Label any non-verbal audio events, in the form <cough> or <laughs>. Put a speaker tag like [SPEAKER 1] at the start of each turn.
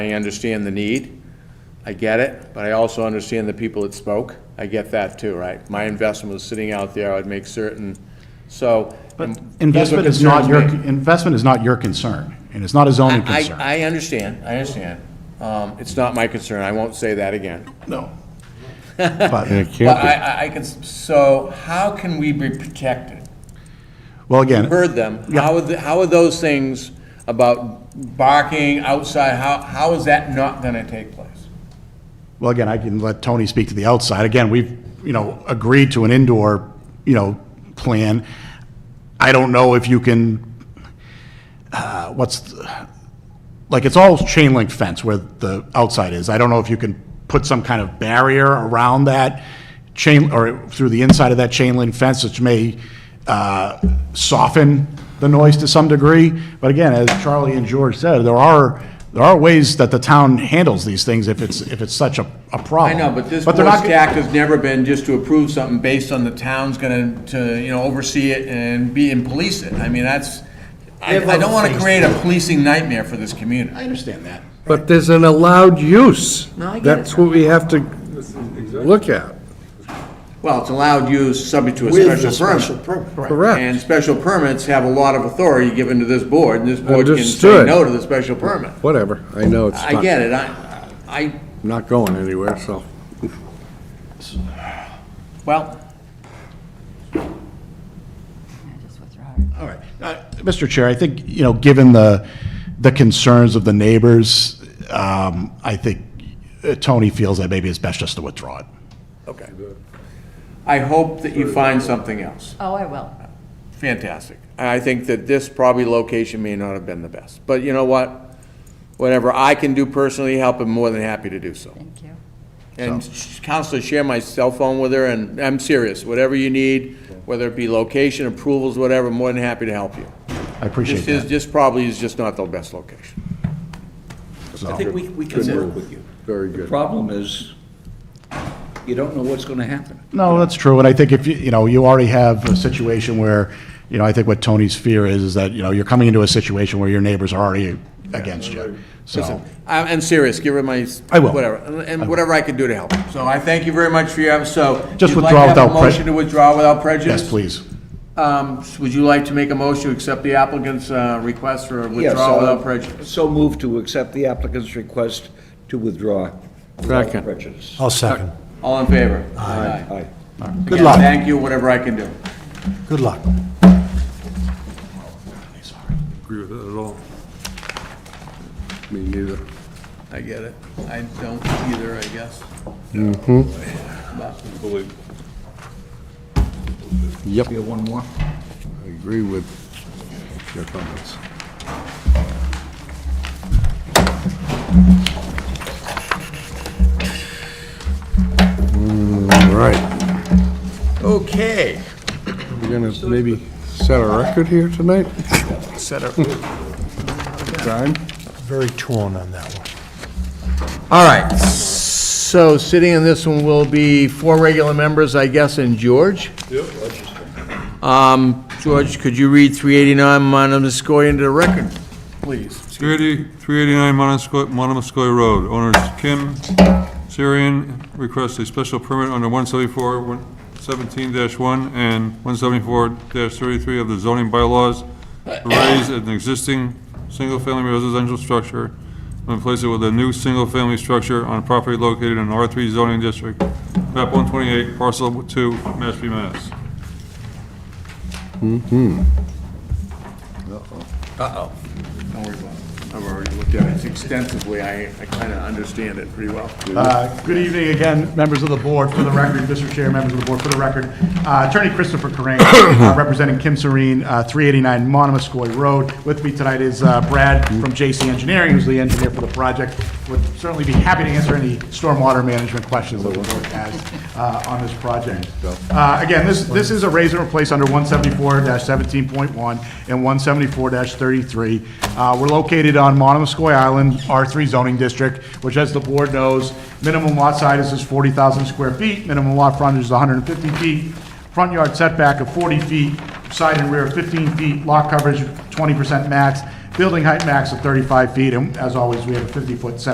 [SPEAKER 1] I understand the need, I get it, but I also understand the people that spoke. I get that too, right? My investment was sitting out there, I'd make certain, so. and that's what
[SPEAKER 2] Investment is not your,
[SPEAKER 1] concerns me.
[SPEAKER 2] investment is not your concern, and it's not a zoning
[SPEAKER 1] I,
[SPEAKER 2] concern.
[SPEAKER 1] I understand, I understand. Um, It's not my concern, I won't say that again. <laughs>
[SPEAKER 2] No. But,
[SPEAKER 1] But I, I- I can, s- so how can we be protected?
[SPEAKER 2] well, again,
[SPEAKER 1] Heard them, how are, the- how are those things about barking outside, how, how is that not gonna take place?
[SPEAKER 2] well, again, I can let Tony speak to the outside. Again, we've, you know, agreed to an indoor, you know, plan. I don't know if you can, uh, what's, the- like, it's all chain link fence where the outside is. I don't know if you can put some kind of barrier around that chain, or through the inside of that chain link fence, which may uh, soften the noise to some degree. But again, as Charlie and George said, there are, there are ways that the town handles these things if it's, if it's such a, a
[SPEAKER 1] I
[SPEAKER 2] problem.
[SPEAKER 1] know, but this
[SPEAKER 2] they're
[SPEAKER 1] board's
[SPEAKER 2] not.
[SPEAKER 1] tact has never been just to approve something based on the town's gonna, to, you know, oversee it and be, and police it. I mean, that's, I, I don't wanna create a policing nightmare for this community.
[SPEAKER 2] I understand that.
[SPEAKER 3] But there's an allowed use.
[SPEAKER 1] No, I get it.
[SPEAKER 3] That's what we have to look at,
[SPEAKER 1] Well, it's allowed use subject to a
[SPEAKER 4] With a
[SPEAKER 1] special
[SPEAKER 4] special
[SPEAKER 1] permit.
[SPEAKER 4] permit.
[SPEAKER 3] correct?
[SPEAKER 1] And special permits have a lot of authority given to this board, and this board can say
[SPEAKER 3] Understood.
[SPEAKER 1] no to the special permit.
[SPEAKER 3] Whatever, I know it's
[SPEAKER 1] I
[SPEAKER 3] not,
[SPEAKER 1] get it, I, I,
[SPEAKER 3] not going anywhere, so.
[SPEAKER 1] well,
[SPEAKER 2] All right. Uh, Mr. Chair, I think, you know, given the, the concerns of the neighbors, um, I think uh, Tony feels that maybe it's best just to withdraw it.
[SPEAKER 1] okay. I hope that you find something else.
[SPEAKER 5] Oh, I will.
[SPEAKER 1] Fantastic. And I think that this probably location may not have been the best. But you know what? Whatever I can do personally, help, I'm more than happy to do so.
[SPEAKER 5] Thank you.
[SPEAKER 1] And Counselor, share my cell phone with her, and I'm serious, whatever you need, whether it be location, approvals, whatever, I'm more than happy to help you.
[SPEAKER 2] I appreciate
[SPEAKER 1] This is,
[SPEAKER 2] that.
[SPEAKER 1] this probably is just not the best location.
[SPEAKER 6] I think we, we can work with you.
[SPEAKER 3] Very
[SPEAKER 6] The
[SPEAKER 3] good.
[SPEAKER 6] problem is, you don't know what's gonna happen.
[SPEAKER 2] No, that's true, and I think if, you you know, you already have a situation where, you know, I think what Tony's fear is, is that, you know, you're coming into a situation where your neighbors are already against you, so.
[SPEAKER 1] I'm, I'm serious, give her my,
[SPEAKER 2] I will.
[SPEAKER 1] whatever, and- and whatever I can do to help. So I thank you very much for your, so.
[SPEAKER 2] Just
[SPEAKER 1] you'd like
[SPEAKER 2] withdraw
[SPEAKER 1] to have a
[SPEAKER 2] without pre-
[SPEAKER 1] Motion to withdraw without prejudice?
[SPEAKER 2] Yes, please.
[SPEAKER 1] Um, would you like to make a motion to accept the applicant's, uh, request for
[SPEAKER 6] Yes.
[SPEAKER 1] withdrawal without prejudice?
[SPEAKER 6] So move to accept the applicant's request to withdraw without
[SPEAKER 3] Second.
[SPEAKER 6] prejudice.
[SPEAKER 4] I'll second.
[SPEAKER 1] All in favor? Aye.
[SPEAKER 6] Aye.
[SPEAKER 1] Good
[SPEAKER 4] luck.
[SPEAKER 1] Thank you, whatever I can do.
[SPEAKER 4] Good luck.
[SPEAKER 3] Agree with that at all. Me neither.
[SPEAKER 1] I get it. I don't either, I guess.
[SPEAKER 3] Yep,
[SPEAKER 6] You have one more?
[SPEAKER 3] I agree with your comments. All right,
[SPEAKER 1] Okay.
[SPEAKER 3] we're gonna maybe set a record here tonight?
[SPEAKER 1] Set up.
[SPEAKER 3] Time?
[SPEAKER 4] Very torn on that one.
[SPEAKER 1] All right, so sitting in this one will be four regular members, I guess, and George? Yep. Um, George, could you read 389 Monomoskoye into the record, please?
[SPEAKER 7] 380 389 Monomoskoy Monomoskoy Road. Owners Kim Syrian requests a special permit under 174, 17-1 and 174-33 of the zoning bylaws to raise an existing single-family residential structure and replace it with a new single-family structure on a property located in R3 zoning district, map 128, parcel 2, Mashpee, Mass.
[SPEAKER 1] Don't worry about it. I've already looked at it extensively. I, I kind of understand it pretty well.
[SPEAKER 2] Uh, Good evening again, members of the board, for the record, Mr. Chair, members of the board, for the record. uh, Attorney Christopher Corain, uh, representing Kim Serene, uh, 389 Monomoskoy Road. With me tonight is uh, Brad from JC Engineering, who's the engineer for the project. Would certainly be happy to answer any stormwater management questions that the board has uh, on this project. Uh, Again, this, this is a raise and replace under 174-17.1 and 174-33. Uh, We're located on Monomoskoy Island, R3 zoning district, which, as the board knows, minimum lot size is 40,000 square feet, minimum lot frontage is 150 feet, front yard setback of 40 feet, side and rear 15 feet, lot coverage 20% max, building height max of 35 feet, and as always, we have a 50-foot setback